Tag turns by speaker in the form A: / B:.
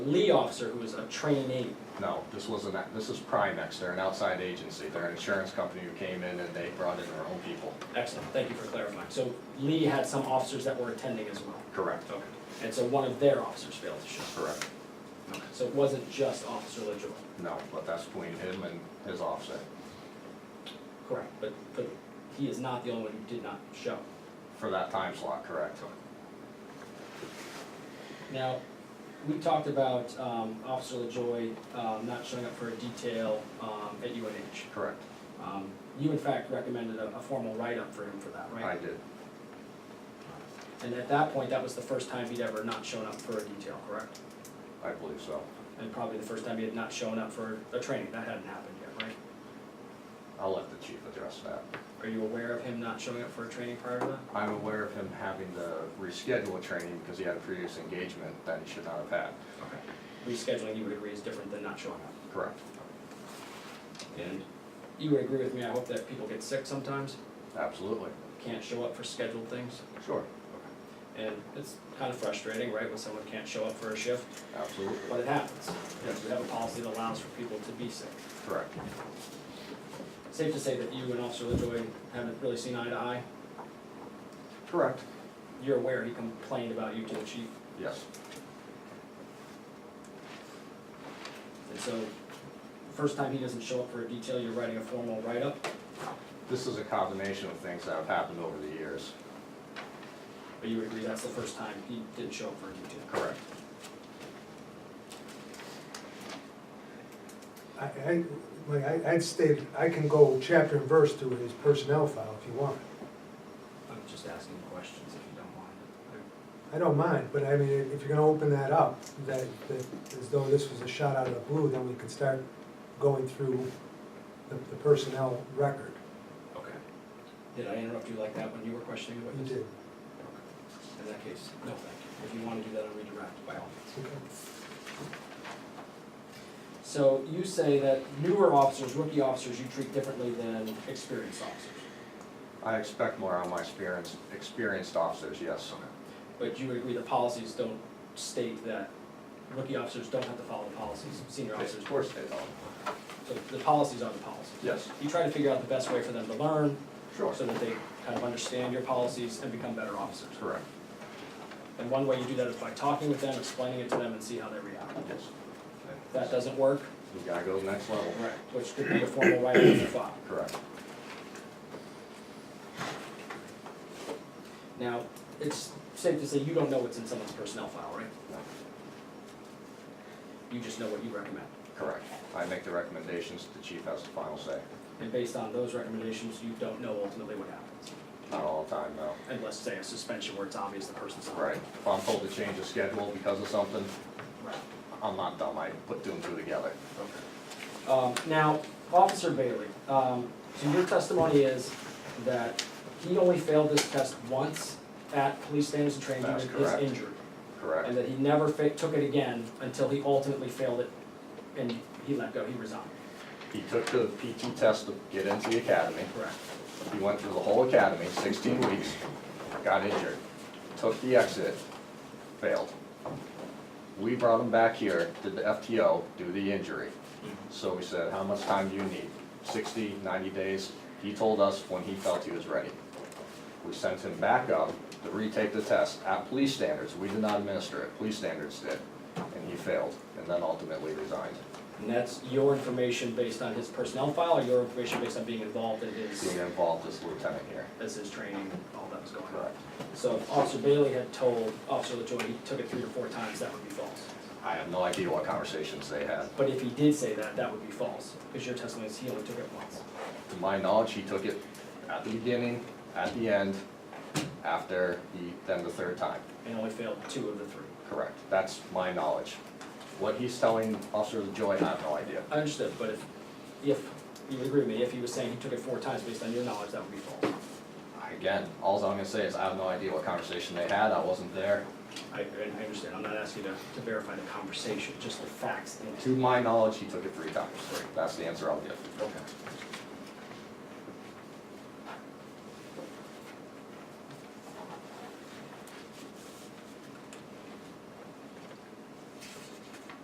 A: lead officer who was a trainee.
B: No, this wasn't, that. this is Primex, they're an outside agency, they're an insurance company who came in and they brought in their own people.
A: Excellent, thank you for clarifying. So Lee had some officers that were attending as well.
B: Correct.
A: Okay. And so one of their officers failed to show.
B: Correct.
A: Okay. So it wasn't just Officer LaJoy.
B: No, but that's between him and his officer.
A: Correct. But, but he is not the only one who did not show.
B: For that time slot, correct.
A: Now, we talked about um, Officer LaJoy um, not showing up for a detail um, at UNH.
B: Correct.
A: Um, You in fact recommended a, a formal write-up for him for that,
B: I
A: right?
B: did.
A: And at that point, that was the first time he'd ever not shown up for a detail, correct?
B: I believe so.
A: And probably the first time he had not shown up for a training, that hadn't happened yet, right?
B: I'll let the chief address that.
A: Are you aware of him not showing up for a training prior to that?
B: I'm aware of him having to reschedule a training because he had a previous engagement that he should not have had.
A: Okay. Rescheduling, you would agree, is different than not showing up.
B: Correct.
A: And you would agree with me, I hope that people get sick sometimes,
B: Absolutely.
A: can't show up for scheduled things.
B: Sure.
A: And it's kind of frustrating, right, when someone can't show up for a shift,
B: Absolutely.
A: but it happens. Yes, we have a policy that allows for people to be sick.
B: Correct.
A: Safe to say that you and Officer LaJoy haven't really seen eye to eye.
B: Correct.
A: You're aware he complained about you to the chief.
B: Yes.
A: And so, first time he doesn't show up for a detail, you're writing a formal write-up.
B: This is a combination of things that have happened over the years.
A: But you would agree that's the first time he didn't show up for a detail?
B: Correct.
C: I, I, like, I, I'd stated, I can go chapter and verse through his personnel file if you want.
A: I'm just asking questions if you don't mind.
C: I don't mind, but I mean, if you're gonna open that up, that, that, as though this was a shot out of the blue, then we can start going through the, the personnel record.
A: Okay. Did I interrupt you like that when you were questioning the
C: You
A: witness?
C: did,
A: In that case, no, thank you. If you want to do that, I'll redirect by all means.
C: okay.
A: So you say that newer officers, rookie officers, you treat differently than experienced officers.
B: I expect more on my experience, experienced officers, yes.
A: But you would agree the policies don't state that rookie officers don't have to follow the policies, senior officers
B: Of
A: do.
B: course they don't.
A: So the policies are the policies.
B: Yes,
A: You try to figure out the best way for them to learn,
B: sure.
A: so that they kind of understand your policies and become better officers.
B: Correct,
A: And one way you do that is by talking with them, explaining it to them, and see how they react.
B: yes.
A: If that doesn't work,
B: You gotta go to the next level.
A: right, which could be a formal write-up in the file.
B: Correct.
A: Now, it's safe to say you don't know what's in someone's personnel file, right?
B: No.
A: You just know what you recommend.
B: Correct. I make the recommendations, the chief has the final say.
A: And based on those recommendations, you don't know ultimately what happens.
B: Not all the time, though.
A: Unless, say, a suspension where it's obvious the person's not.
B: Right. If I'm told to change a schedule because of something,
A: Right,
B: I'm not dumb, I put two and two together.
A: okay. Um, now, Officer Bailey, um, so your testimony is that he only failed this test once at police standards and training due
B: That's
A: to his
B: correct.
A: injury. and
B: Correct,
A: that he never fa- took it again until he ultimately failed it and he let go, he resigned.
B: he took the PT test to get into the academy.
A: Correct.
B: He went through the whole academy, sixteen weeks, got injured, took the exit, failed. We brought him back here, did the FTO, do the injury. So we said, how much time do you need? 60, 90 days? He told us when he felt he was ready. We sent him back up to retake the test at police standards. We did not administer it, police standards did. And he failed, and then ultimately resigned,
A: And that's your information based on his personnel file or your information based on being involved in
B: being
A: his,
B: involved as lieutenant here.
A: as his training and all that was going on?
B: Correct.
A: So if Officer Bailey had told Officer LaJoy he took it three or four times, that would be false.
B: I have no idea what conversations they had.
A: But if he did say that, that would be false, because your testimony is he only took it once.
B: To my knowledge, he took it at the beginning, at the end, after he, then the third time.
A: And only failed two of the three.
B: Correct. That's my knowledge. What he's telling Officer Joy, I have no idea.
A: I understood, but if, if, you would agree with me, if he was saying he took it four times based on your knowledge, that would be false.
B: Again, alls I'm gonna say is I have no idea what conversation they had, I wasn't there.
A: I, and I understand, I'm not asking you to, to verify the conversation, just the facts and
B: To my knowledge, he took it three times. That's the answer I'll give.
A: Okay.